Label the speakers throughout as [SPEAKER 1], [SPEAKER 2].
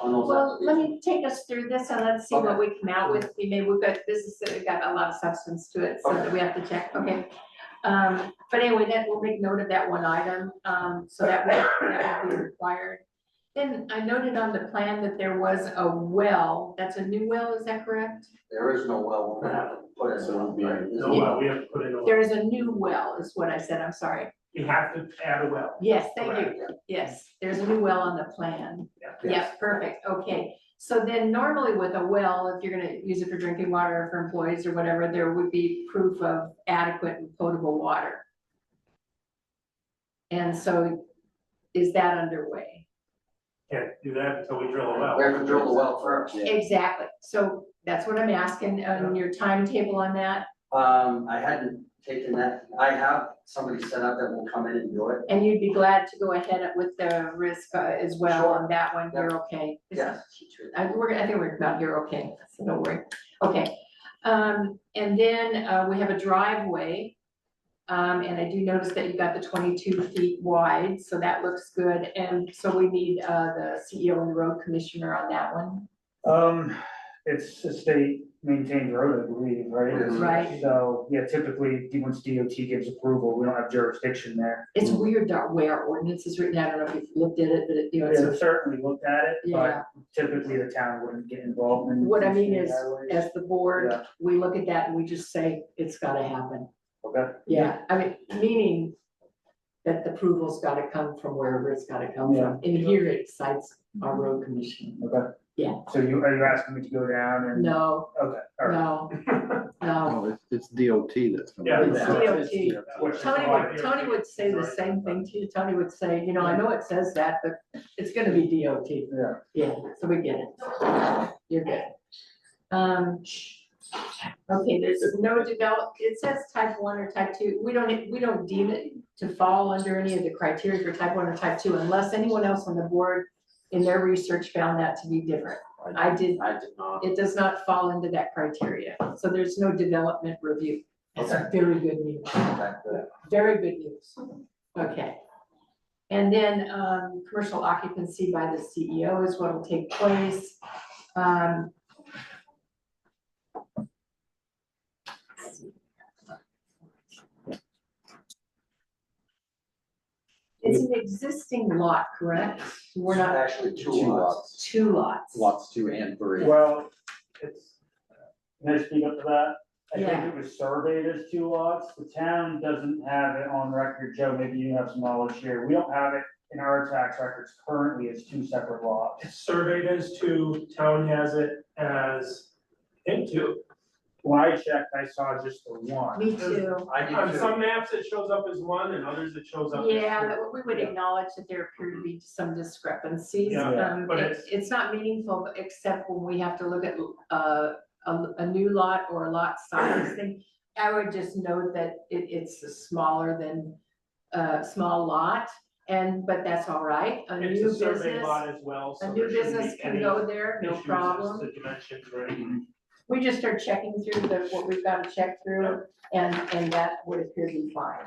[SPEAKER 1] goes
[SPEAKER 2] Well,
[SPEAKER 1] up.
[SPEAKER 2] let me take us through this and let's see what we come out with. We may, we've got, this is, we've got a lot of substance to it, so that we have to check, okay? Um, but anyway, that, we'll make note of that one item, um, so that would, that would be required. Then I noted on the plan that there was a well, that's a new well, is that correct?
[SPEAKER 1] There is no well, we're gonna have to put it
[SPEAKER 3] So
[SPEAKER 1] in,
[SPEAKER 3] we-
[SPEAKER 1] right? There's
[SPEAKER 3] No,
[SPEAKER 1] no-
[SPEAKER 3] well, we have to put in a,
[SPEAKER 2] There is a new well, is what I said, I'm sorry.
[SPEAKER 3] we have to add a well.
[SPEAKER 2] Yes, thank you, yes, there's a new well on the plan.
[SPEAKER 1] Yes.
[SPEAKER 2] Yes, perfect, okay. So then normally with a well, if you're gonna use it for drinking water or for employees or whatever, there would be proof of adequate and potable water. And so is that underway?
[SPEAKER 3] Can't do that until we drill a well.
[SPEAKER 1] We have to drill the well first.
[SPEAKER 4] Yeah.
[SPEAKER 2] Exactly, so that's what I'm asking, on your timetable on that,
[SPEAKER 1] Um, I hadn't taken that, I have somebody set up that will come in and do it,
[SPEAKER 2] and you'd be glad to go ahead with the risk uh, as well on that one, you're okay? This is-
[SPEAKER 1] yes.
[SPEAKER 2] I, we're, I think we're about, you're okay, so don't worry, okay. Um, and then, uh, we have a driveway. Um, and I do notice that you got the twenty-two feet wide, so that looks good, and so we need, uh, the CEO and the road commissioner on that one.
[SPEAKER 5] Um, it's a state maintained road, I believe, right?
[SPEAKER 1] Yes.
[SPEAKER 2] Right.
[SPEAKER 5] So, yeah, typically, once DOT gives approval, we don't have jurisdiction there.
[SPEAKER 2] It's weird that way our ordinance is written, I don't know if you've looked at it, but it, you know, it's
[SPEAKER 5] They've certainly looked at it,
[SPEAKER 2] Yeah.
[SPEAKER 5] but typically the town wouldn't get involved in.
[SPEAKER 2] What I mean
[SPEAKER 5] state
[SPEAKER 2] is,
[SPEAKER 5] highways.
[SPEAKER 2] as the board,
[SPEAKER 5] Yeah.
[SPEAKER 2] we look at that and we just say, it's gotta happen.
[SPEAKER 5] Okay.
[SPEAKER 2] Yeah, I mean, meaning that the approval's gotta come from wherever it's gotta come from, and here it cites our road commission.
[SPEAKER 5] Okay.
[SPEAKER 2] Yeah.
[SPEAKER 5] So you, are you asking me to go down and,
[SPEAKER 2] No,
[SPEAKER 5] okay, all right. Oh,
[SPEAKER 2] no, no.
[SPEAKER 4] No, it's, it's DOT that's. gonna
[SPEAKER 3] Yeah.
[SPEAKER 4] do
[SPEAKER 2] It's
[SPEAKER 4] that.
[SPEAKER 2] DOT.
[SPEAKER 4] It's-
[SPEAKER 3] Which is
[SPEAKER 2] Tony
[SPEAKER 3] why
[SPEAKER 2] would, Tony would say the
[SPEAKER 3] Sorry.
[SPEAKER 2] same thing to you, Tony would say, you know, I know it says that, but it's gonna be DOT,
[SPEAKER 5] Yeah,
[SPEAKER 2] yeah, so we get it. You're good. Um, okay, there's no develop, it says type one or type two, we don't, we don't deem it to fall under any of the criteria for type one or type two unless anyone else on the board in their research found that to be different. I did,
[SPEAKER 1] I did not.
[SPEAKER 2] it does not fall into that criteria, so there's no development review. That's very good news,
[SPEAKER 1] Back there.
[SPEAKER 2] very good news. Okay. And then, um, commercial occupancy by the CEO is what will take place. Um, It's an existing lot, correct? We're not
[SPEAKER 1] Actually, two
[SPEAKER 4] Two
[SPEAKER 1] lots.
[SPEAKER 2] two lots.
[SPEAKER 4] Lots two and three.
[SPEAKER 5] well, it's, can I speak up to that? I
[SPEAKER 2] Yeah.
[SPEAKER 5] think it was surveyed as two lots, the town doesn't have it on record, Joe, maybe you have some knowledge here, we don't have it in our tax records currently as two separate lots.
[SPEAKER 3] It's surveyed as two, town has it as into.
[SPEAKER 5] When I checked, I saw just the one.
[SPEAKER 2] Me too.
[SPEAKER 1] I did
[SPEAKER 3] On
[SPEAKER 1] too.
[SPEAKER 3] some maps, it shows up as one, and others it shows up as two.
[SPEAKER 2] Yeah, that we would
[SPEAKER 3] Yeah.
[SPEAKER 2] acknowledge that there appear to be some discrepancies.
[SPEAKER 3] Yeah,
[SPEAKER 5] Yeah.
[SPEAKER 2] Um,
[SPEAKER 3] but
[SPEAKER 2] it-
[SPEAKER 3] it's-
[SPEAKER 2] It's not meaningful, except when we have to look at uh, a, a new lot or a lot size thing. I would just note that it, it's a smaller than, uh, small lot, and, but that's all right. A new
[SPEAKER 3] It's a
[SPEAKER 2] business,
[SPEAKER 3] survey lot as well,
[SPEAKER 2] a
[SPEAKER 3] so
[SPEAKER 2] new
[SPEAKER 3] there shouldn't
[SPEAKER 2] business
[SPEAKER 3] be
[SPEAKER 2] can
[SPEAKER 3] any
[SPEAKER 2] go there, no
[SPEAKER 3] issues as
[SPEAKER 2] problem.
[SPEAKER 3] to dimensions or anything.
[SPEAKER 2] We just are checking through the, what we've got to check through, and, and that would appear to be fine.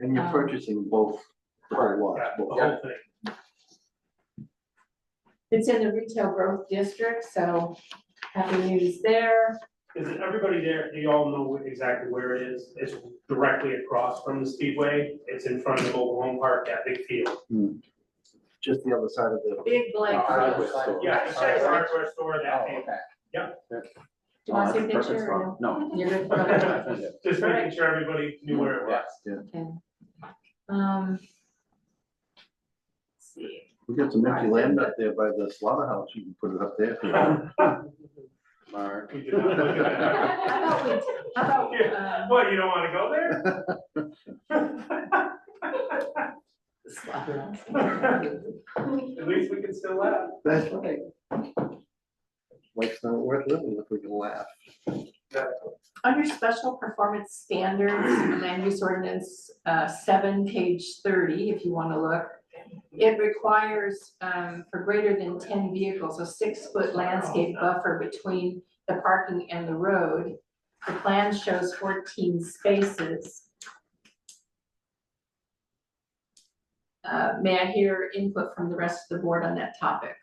[SPEAKER 4] And you're
[SPEAKER 2] um,
[SPEAKER 4] purchasing both, the whole lot,
[SPEAKER 3] Yeah, the
[SPEAKER 4] both.
[SPEAKER 3] whole thing.
[SPEAKER 2] It's in the retail growth district, so happy news there.
[SPEAKER 3] Because everybody there, they all know wh- exactly where it is, it's directly across from the speedway, it's in front of the mobile home park, that big field.
[SPEAKER 4] Just the other side of the.
[SPEAKER 2] Big blank.
[SPEAKER 1] Hardware
[SPEAKER 2] Do
[SPEAKER 4] Hardware
[SPEAKER 1] store.
[SPEAKER 4] store.
[SPEAKER 3] Yeah, it's
[SPEAKER 2] Sorry.
[SPEAKER 3] a hardware store,
[SPEAKER 4] Oh,
[SPEAKER 3] that thing,
[SPEAKER 4] okay.
[SPEAKER 3] Yeah.
[SPEAKER 2] you want
[SPEAKER 4] Oh,
[SPEAKER 2] to take a
[SPEAKER 4] that's perfect
[SPEAKER 2] picture or
[SPEAKER 1] Um,
[SPEAKER 4] spot. No.
[SPEAKER 2] no? You're good.
[SPEAKER 3] Yeah.
[SPEAKER 4] Yeah.
[SPEAKER 3] just making sure everybody knew where it was.
[SPEAKER 4] Yeah,
[SPEAKER 2] Okay. Um. let's See,
[SPEAKER 4] we got some empty land up there by the slaughterhouse, you can put it up there. if you want. Mark.
[SPEAKER 3] We did not look at that.
[SPEAKER 2] how about, we- how about, um,
[SPEAKER 3] What, you don't wanna go there?
[SPEAKER 2] slaughterhouse?
[SPEAKER 3] At least we can still laugh.
[SPEAKER 4] That's right. Life's not worth living if we can laugh.
[SPEAKER 2] Under special performance standards, land use ordinance, uh, seven, page thirty, if you wanna look. It requires, um, for greater than ten vehicles, a six-foot landscape buffer between the parking and the road. The plan shows fourteen spaces. Uh, may I hear input from the rest of the board on that topic?